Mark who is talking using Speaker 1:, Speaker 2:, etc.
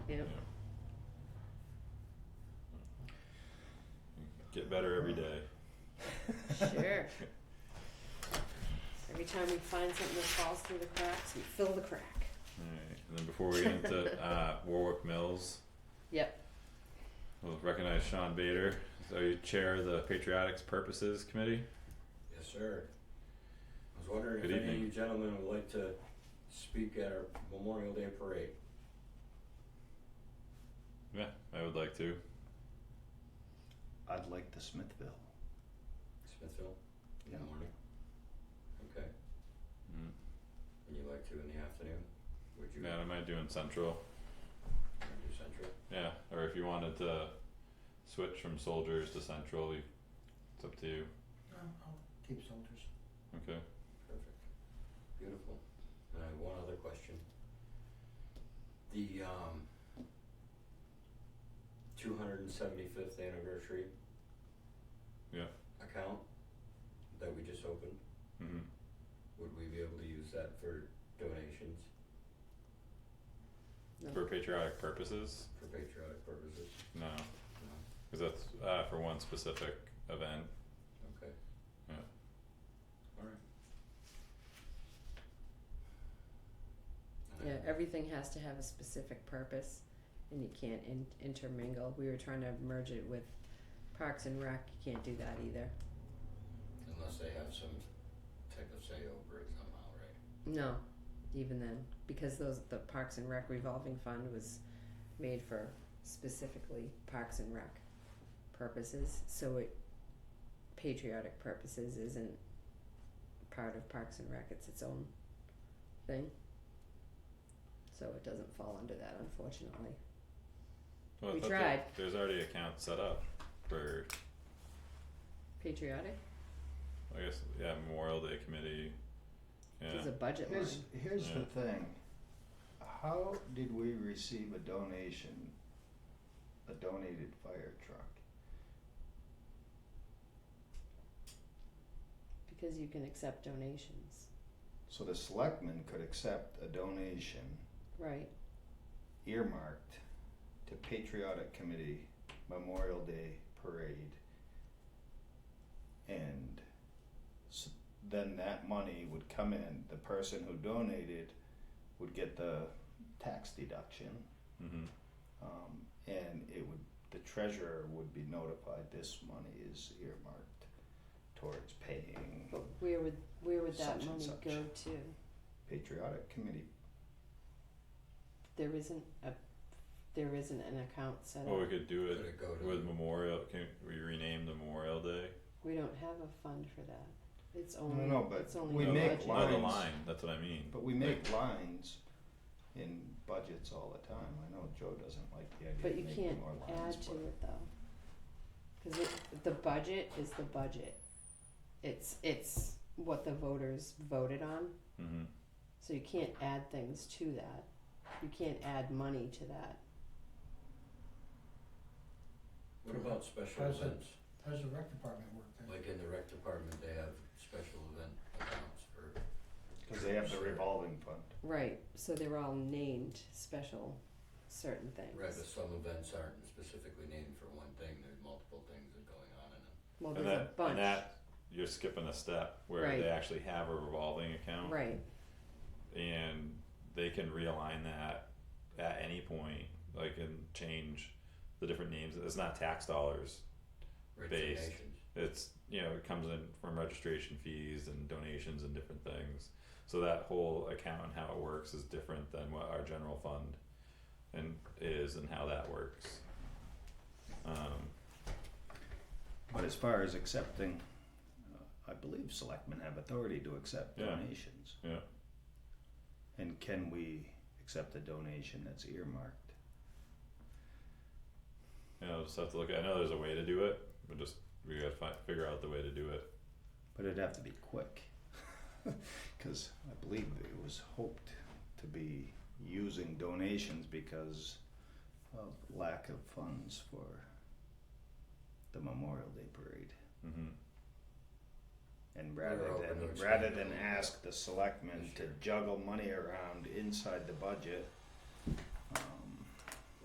Speaker 1: Yep.
Speaker 2: Yeah. Get better every day.
Speaker 1: Sure. Every time we find something that falls through the cracks, we fill the crack.
Speaker 2: Alright, and then before we get into uh Warwick Mills,
Speaker 1: Yep.
Speaker 2: we'll recognize Sean Bader, so you chair of the Patriotics Purposes Committee.
Speaker 3: Yes, sir. I was wondering if
Speaker 2: Good
Speaker 3: any of
Speaker 2: evening.
Speaker 3: you gentlemen would like to speak at our Memorial Day parade.
Speaker 2: Yeah, I would like to.
Speaker 4: I'd like the Smithville.
Speaker 3: Smithville? In
Speaker 4: Yeah.
Speaker 3: the morning? Okay.
Speaker 2: Mm.
Speaker 3: And you'd like to in the afternoon? Would you?
Speaker 2: Yeah, I might do in Central.
Speaker 3: wanna do Central?
Speaker 2: Yeah, or if you wanted to switch from soldiers to central, you, it's up to you.
Speaker 4: No, I'll keep soldiers.
Speaker 2: Okay.
Speaker 3: Perfect. Beautiful. And I have one other question. The, um, two hundred and seventy-fifth anniversary.
Speaker 2: Yeah.
Speaker 3: Account that we just opened,
Speaker 2: hmm
Speaker 3: would we be able to use that for donations?
Speaker 1: No.
Speaker 2: For patriotic purposes,
Speaker 3: For patriotic purposes?
Speaker 2: no,
Speaker 3: No,
Speaker 2: because that's uh, for one specific event.
Speaker 3: okay.
Speaker 2: Yeah.
Speaker 3: Alright.
Speaker 1: Yeah, everything has to have a specific purpose and you can't in- intermingle. We were trying to merge it with Parks and Rec, you can't do that either.
Speaker 3: Unless they have some type of say over it somehow, right?
Speaker 1: No, even then, because those, the Parks and Rec revolving fund was made for specifically Parks and Rec purposes, so it patriotic purposes isn't part of Parks and Rec, it's its own thing. So it doesn't fall under that unfortunately.
Speaker 2: Well, I
Speaker 1: We
Speaker 2: thought there-
Speaker 1: tried.
Speaker 2: there's already accounts set up for,
Speaker 1: Patriotic
Speaker 2: I guess, yeah, Memorial Day committee. Yeah,
Speaker 1: is a budget line.
Speaker 4: Here's, here's the thing. How did we receive a donation, a donated fire truck?
Speaker 1: Because you can accept donations,
Speaker 4: So the selectmen could accept a donation
Speaker 1: right,
Speaker 4: earmarked to Patriotic Committee Memorial Day Parade. And s- then that money would come in, the person who donated would get the tax deduction.
Speaker 2: mm-hmm,
Speaker 4: Um, and it would, the treasurer would be notified this money is earmarked towards paying
Speaker 1: but where would, where would that
Speaker 4: Such and
Speaker 1: money
Speaker 4: such.
Speaker 1: go to?
Speaker 4: Patriotic Committee.
Speaker 1: There isn't a, there isn't an account set up.
Speaker 2: well, we could do
Speaker 3: Could
Speaker 2: it
Speaker 3: it go to?
Speaker 2: with Memorial, can we rename the Memorial Day?
Speaker 1: We don't have a fund for that. It's only,
Speaker 4: No, no, but
Speaker 1: it's only
Speaker 4: we
Speaker 1: a
Speaker 2: No,
Speaker 4: make
Speaker 1: budget.
Speaker 2: No, Oh, the
Speaker 4: lines.
Speaker 2: line, that's what I mean.
Speaker 4: But we make lines in budgets all the time. I know Joe doesn't like the
Speaker 1: But
Speaker 4: idea
Speaker 1: you
Speaker 4: of making
Speaker 1: can't
Speaker 4: more lines,
Speaker 1: add to
Speaker 4: but
Speaker 1: it though. Cause it, the budget is the budget. It's, it's what the voters voted on,
Speaker 2: Mm-hmm,
Speaker 1: so you can't add things to that. You can't add money to that.
Speaker 3: What about special
Speaker 5: How's it-
Speaker 3: events?
Speaker 5: How's the rec department work then?
Speaker 3: Like in the rec department, they have special event accounts for.
Speaker 4: because they have the
Speaker 3: Sure.
Speaker 4: revolving fund.
Speaker 1: Right, so they're all named special, certain things.
Speaker 3: Right, but some events aren't specifically named for one thing, there's multiple things that are going on in them.
Speaker 1: Well,
Speaker 2: and
Speaker 1: Oh, there's a
Speaker 2: that,
Speaker 1: bunch.
Speaker 2: and that, you're skipping a step where
Speaker 1: Right.
Speaker 2: they actually have a revolving account.
Speaker 1: Right,
Speaker 2: and they can realign that at any point, like and change the different names. It's not tax dollars.
Speaker 3: Rich
Speaker 2: Based.
Speaker 3: nations.
Speaker 2: It's you know it comes in from registration fees and donations and different things. So that whole account and how it works is different than what our general fund and is and how that works. Um,
Speaker 4: But as far as accepting, uh, I believe selectmen have authority to accept
Speaker 2: Yeah.
Speaker 4: donations.
Speaker 2: Yeah.
Speaker 4: And can we accept a donation that's earmarked?
Speaker 2: you know, just have to look at. I know there's a way to do it, but just we gotta fi- figure out the way to do it.
Speaker 4: But it'd have to be quick. Because I believe it was hoped to be using donations because of lack of funds for the Memorial Day Parade.
Speaker 2: hmm
Speaker 4: And
Speaker 3: We're
Speaker 4: rather
Speaker 3: open to
Speaker 4: than,
Speaker 3: expand
Speaker 4: rather than
Speaker 3: on that
Speaker 4: ask the selectmen
Speaker 3: this
Speaker 4: to
Speaker 3: year.
Speaker 4: juggle money around inside the budget, um,